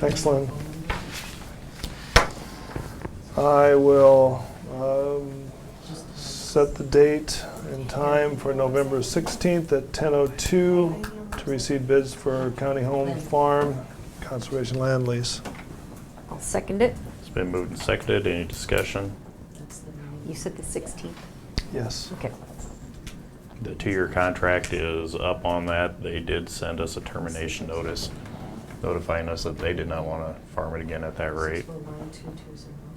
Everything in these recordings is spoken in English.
Thanks, Lynn. I will um, set the date and time for November 16th at 10:02 to receive bids for county home, farm, conservation land lease. I'll second it. It's been moved and seconded. Any discussion? You said the 16th. Yes. Okay. The two-year contract is up on that. They did send us a termination notice notifying us that they did not want to farm it again at that rate.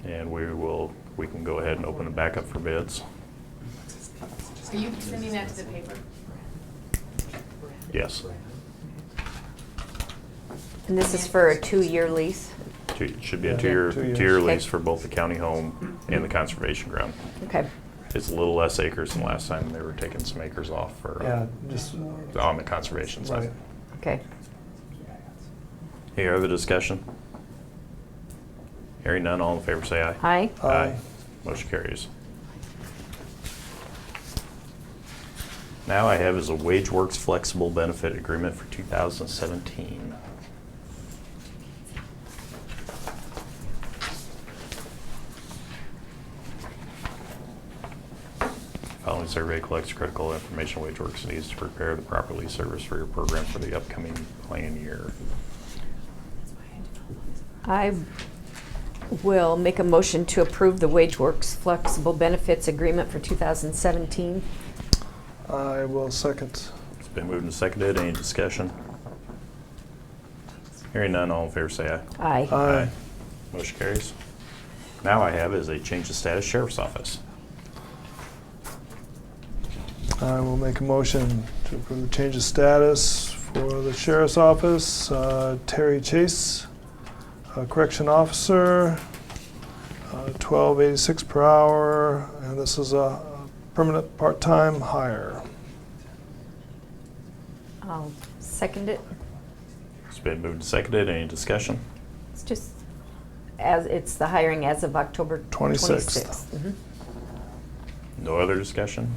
And we will, we can go ahead and open it back up for bids. Are you sending that to the paper? Yes. And this is for a two-year lease? Two- It should be a Yeah, two-year, two years. two-year Okay. lease for both the county home and the conservation ground. Okay. It's a little less acres than last time. They were taking some acres off for, Yeah, uh, just, on the conservation side. right. Okay. Any other discussion? Hearing none, all in favor say aye. Aye. Aye. Motion carries. Now I have is a Wage Works Flexible Benefit Agreement for 2017. Following survey collects critical information Wage Works needs to prepare the properly service for your program for the upcoming plan year. I will make a motion to approve the Wage Works Flexible Benefits Agreement for 2017. I will second. It's been moved and seconded. Any discussion? Hearing none, all in favor say aye. Aye. Aye. Motion carries. Now I have is a change of status sheriff's office. I will make a motion to approve the change of status for the sheriff's office. Uh, Terry Chase, uh, correction officer, uh, twelve eighty-six per hour, and this is a permanent part-time hire. I'll second it. It's been moved and seconded. Any discussion? It's just, as, it's the hiring as of October 26th. 26th. Mhm. No other discussion?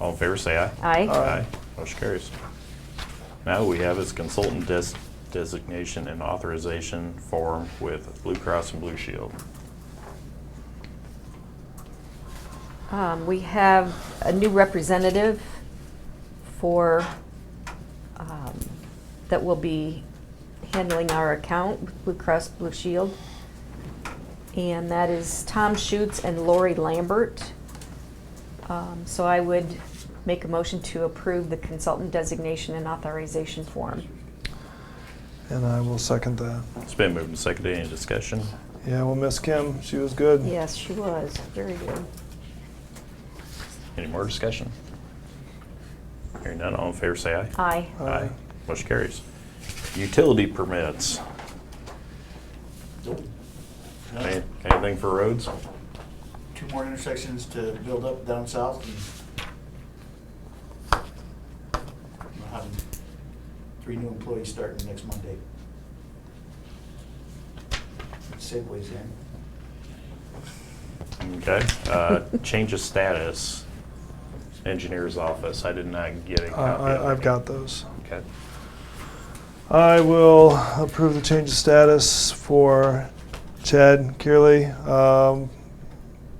All in favor, say aye. Aye. Aye. Motion carries. Now we have is consultant des- designation and authorization form with Blue Cross and Blue Shield. Um, We have a new representative for, um, that will be handling our account with Blue Cross Blue Shield. And that is Tom Schutz and Lori Lambert. Um, So I would make a motion to approve the consultant designation and authorization form. And I will second that. It's been moved and seconded. Any discussion? Yeah, we'll miss Kim. She was good. Yes, she was, very good. Any more discussion? Hearing none, all in favor, say aye. Aye. Aye. Motion carries. Utility permits. Any- Anything for roads? two more intersections to build up down south and we'll have three new employees starting next Monday. Segways eh? in. Okay. Uh, Change of status, engineer's office. I did not get a I- copy. of I, I've it. got those. Okay. I will approve the change of status for Chad Kearley, um,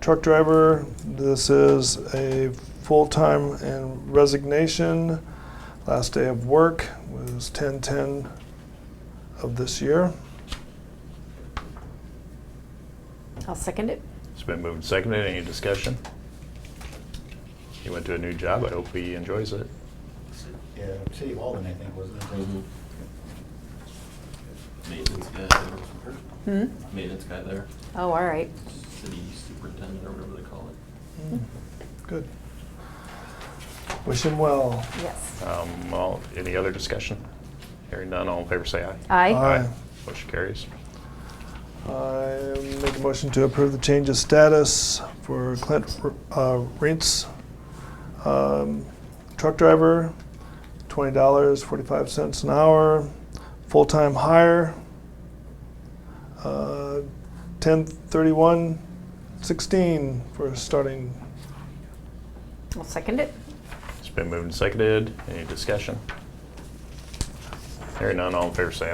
truck driver. This is a full-time and resignation. Last day of work was 10-10 of this year. I'll second it. It's been moved and seconded. Any discussion? He went to a new job. I hope he enjoys it. Yeah, City of Walden, I think, wasn't it? Maintenance guy there. Hmm? Maintenance guy there, Oh, all right. city superintendent or whatever they call it. Good. Wish him well. Yes. Um, all- Any other discussion? Hearing none, all in favor say aye. Aye. Aye. Motion carries. I make a motion to approve the change of status for Clint uh, Rentz, um, truck driver, twenty dollars forty-five cents an hour, full-time hire, uh, ten thirty-one sixteen for starting. I'll second it. It's been moved and seconded. Any discussion? Hearing none, all in favor say aye.